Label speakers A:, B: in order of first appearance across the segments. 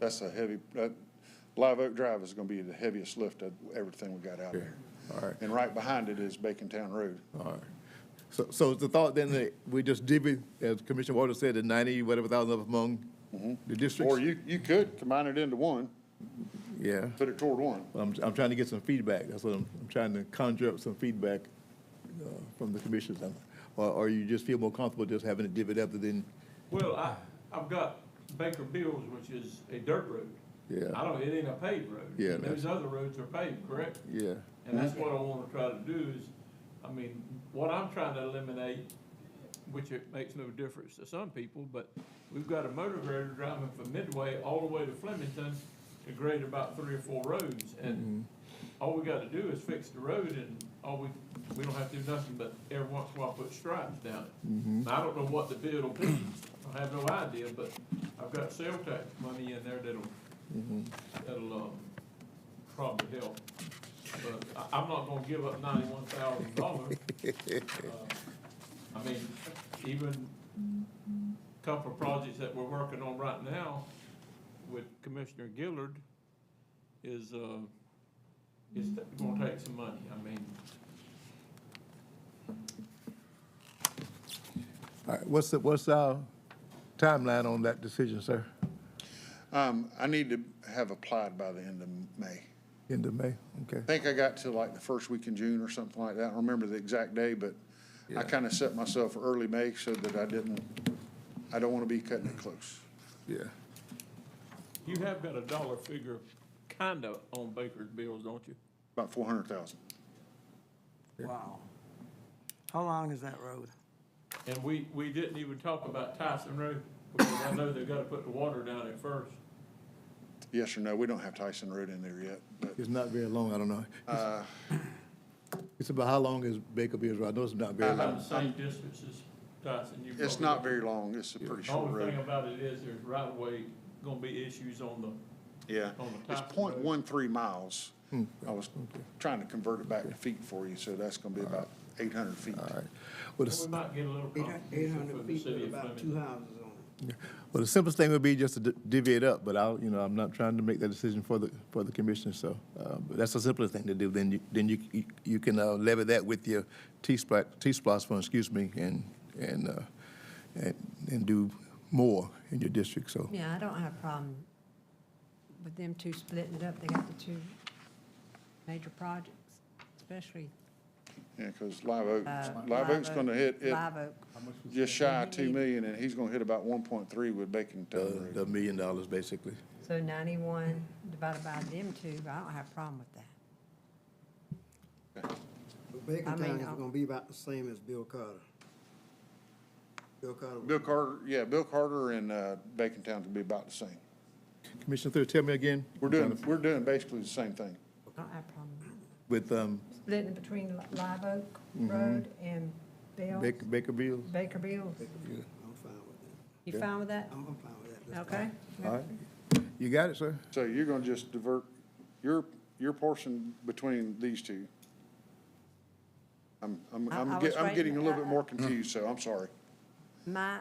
A: That's a heavy, that, Live Oak Drive is gonna be the heaviest lift of everything we got out there.
B: All right.
A: And right behind it is Bacon Town Road.
B: All right. So, so is the thought then that we just divvy, as Commissioner Walter said, the ninety, whatever thousand up among the districts?
A: Or you, you could combine it into one,
B: Yeah.
A: put it toward one.
B: I'm, I'm trying to get some feedback. That's what I'm, I'm trying to conjure up some feedback uh, from the commissioners. Um, Or, or you just feel more comfortable just having to divvy it up than,
C: Well, I, I've got Baker Bills, which is a dirt road.
B: Yeah.
C: I don't, it ain't a paved road.
B: Yeah,
C: And
B: that's-
C: Those other roads are paved, correct?
B: yeah.
C: And that's what I wanna try to do is, I mean, what I'm trying to eliminate, which it makes no difference to some people, but we've got a motor grader driving from Midway all the way to Flemington to grade about three or four roads,
B: Mm-hmm.
C: and all we gotta do is fix the road, and all we, we don't have to do nothing but every once in a while put stripes down it. And I don't know what the bid will be, I have no idea, but I've got sales tax money in there that'll, that'll, um, probably help. But I, I'm not gonna give up ninety-one thousand dollars. Uh, I mean, even a couple of projects that we're working on right now with Commissioner Gillard is, uh, is gonna take some money, I mean.
B: All right, what's, the- what's our timeline on that decision, sir?
A: Um, I need to have applied by the end of May.
B: End of May, okay?
A: I think I got to like the first week in June or something like that. I don't remember the exact day, but I kind of set myself early May so that I didn't, I don't want to be cutting it close.
B: Yeah.
C: You have got a dollar figure kinda on Baker's bills, don't you?
A: About four hundred thousand.
D: Wow. How long is that road?
C: And we, we didn't even talk about Tyson Road, because I know they gotta put the water down there first.
A: Yes or no? We don't have Tyson Road in there yet, but
B: It's not very long, I don't know. It's about how long is Baker Beers Road? I know it's not very long.
C: About the same distance as Tyson. You
A: it's
C: probably-
A: not very long. It's a pretty
C: The
A: short
C: Only
A: road.
C: thing about it is there's right of way gonna be issues on the,
A: Yeah,
C: on the
A: it's
C: top of
A: point
C: the-
A: one three miles.
B: Hmm.
A: I was trying to convert it back to feet for you, so that's gonna be about eight hundred feet.
B: All right. Well, the,
C: we might get a little
D: Eight
C: competition
D: hundred
C: from Oh, the
D: feet
C: city
D: with
C: of
D: about
C: Flemington.
D: two houses on it.
B: well, the simplest thing would be just to di- divvy it up, but I'll, you know, I'm not trying to make that decision for the, for the commissioner, so. uh, But that's the simplest thing to do, then you, then you, you- you can uh, levy that with your T-Splat, T-Splosh fund, excuse me, and, and, uh, and, and do more in your district, so.
E: Yeah, I don't have a problem with them two splitting it up. They got the two major projects, especially
A: Yeah, because Live Oak,
E: uh,
A: Live Oak's gonna hit, it
E: Live Oak.
A: just shy of two million, and he's gonna hit about one point three with Bacon
B: The,
A: Town Road.
B: the million dollars, basically.
E: So 91 divided by them two, I don't have a problem with that.
D: But Bacon
E: I mean,
D: Town is
E: I'll-
D: gonna be about the same as Bill Carter. Bill Carter, was-
A: Bill Carter, yeah, Bill Carter and, uh, Bacon Town could be about the same.
B: Commissioner Thur, tell me again.
A: We're doing, we're doing basically the same thing.
E: I don't have a problem. with that.
B: With, um,
E: Splitting between Li- Live Oak Road and Bill,
B: Mm-hmm. Baker, Baker Beals?
E: Baker Bills.
D: I'm fine with that.
E: You fine with that?
D: I'm, I'm fine with that. That's
E: Okay?
D: fine.
B: All right. You got it, sir?
A: So you're gonna just divert your, your portion between these two. I'm, I'm,
E: I- I
A: I'm,
E: was
A: get- I'm
E: writing-
A: getting a little
E: I-
A: bit more confused, so I'm sorry.
E: My,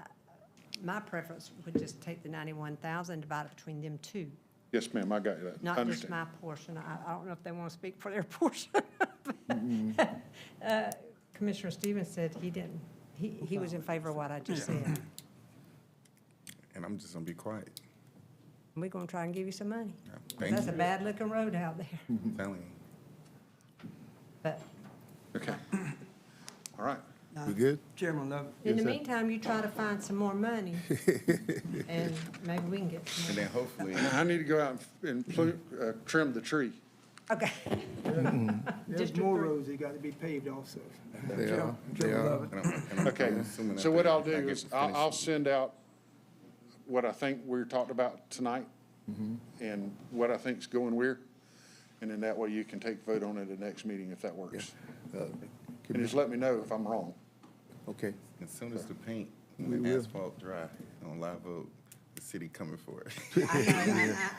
E: my preference would just take the 91,000 divided between them two,
A: Yes, ma'am, I got you. that.
E: not just
A: Understand.
E: my portion. I, I don't know if they want to speak for their portion. Uh, Commissioner Stevens said he didn't, he, he was in favor of what I just said.
F: and I'm just gonna be quiet.
E: We're going to try and give you some money.
F: Yeah, Thank
E: That's a
F: you.
E: bad looking road out there,
F: I'm telling you.
E: but
A: Okay. All right.
B: We good?
D: Chairman Love,
E: in
B: Yes,
E: the
B: sir.
E: meantime, you try to find some more money and maybe we can get some
F: And
E: more.
F: then hopefully,
A: I need to go out and plu- uh, trim the tree.
E: Okay.
G: There's
E: District
G: more
E: three.
G: roads that got to be paved also.
B: They are, they
G: Chairman
B: are.
G: Love,
F: and I'm, and I'm-
A: Okay,
F: I'm assuming that
A: so what
F: they-
A: I'll
F: I
A: do
F: get
A: is
F: to
A: I'll,
F: finish
A: I'll
F: it.
A: send out what I think we talked about tonight
F: Mm-hmm.
A: and what I think's going where. And then that way you can take vote on it at the next meeting if that works.
B: Uh,
A: And just let me know if I'm wrong.
B: Okay.
F: As soon as the paint
B: We
F: and the
B: will.
F: asphalt dry on Live Oak, the city coming for it.
E: I know, I-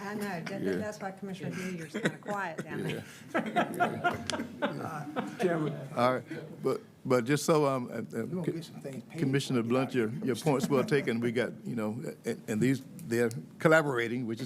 E: I, I know, That- that- that's why Commissioner Gilliard's kind of quiet down there.
G: Chairman,
B: All right, but, but just so, um, uh, uh,
G: gonna get some things paid
B: Commissioner
G: before we get out
B: Blunt, your, your point's well taken, we got, you know, and, and these, they're collaborating, which is